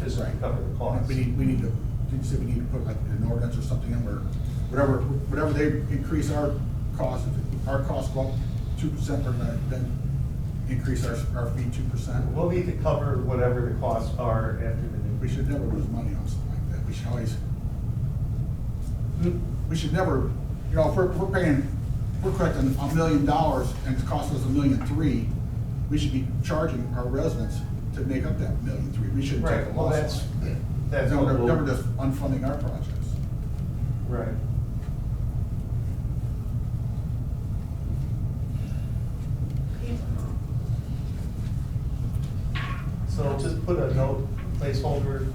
physically Right. cover the cost. We need, we need to, did you say we need to put like an ordinance or something in where, whatever, whatever they increase our cost, if our cost go up two percent or not, then increase our, our fee two percent. We'll need to cover whatever the costs are after the new. We should never lose money on something like that. We should always, we should never, you know, if we're, if we're paying, if we're collecting a million dollars and it costs us a million three, we should be charging our residents to make up that million three. We shouldn't take a Right, well, loss. that's, on it. that's. Then what we're, we'll- then we're just unfunding our projects. Right. So just put a note placeholder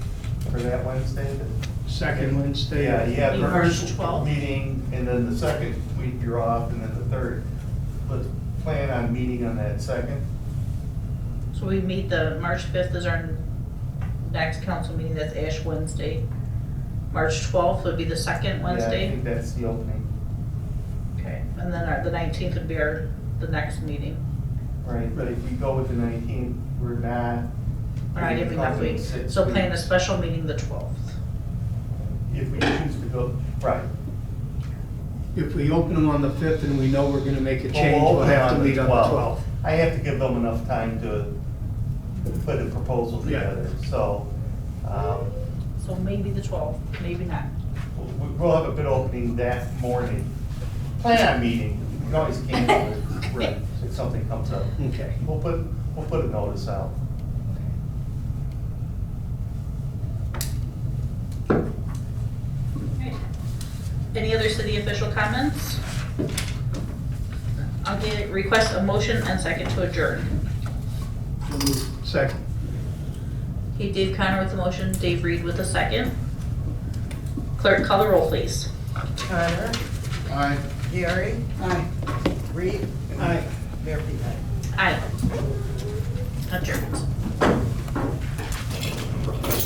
for that Wednesday. that- Second Wednesday. Yeah, you have The your first first 12th. meeting, and then the second week you're off, and then the third. But plan on meeting on that second. So we meet the, March fifth is our next council meeting, that's Ash Wednesday. March twelfth would be the second Yeah, I Wednesday. think that's the opening, Okay. And then our, the nineteenth would be our, the next meeting. right? But if we go with the nineteenth, we're not. All right, if we have covering we, six so plan a weeks. special meeting the twelfth. If we choose to go, right. If we open them on the fifth and we know we're gonna make a change, Well, we'll open have to meet on the 12th. twelfth. I have to give them enough time to put a proposal Yeah. together, so, um, So maybe the twelfth, maybe not. we- we'll have a bid opening that morning. Plan on meeting, we can always cancel it Right. if something comes up. Okay. We'll put, we'll put a notice out. Any other city official comments? I'll get, request a motion and second to adjourn. Second. Okay, Dave Connor with the motion, Dave Reed with the second. Clerk, call the roll, please. Connor, Aye. Gary. Aye. Reed. Aye. Murphy, aye. Aye. Adjourn.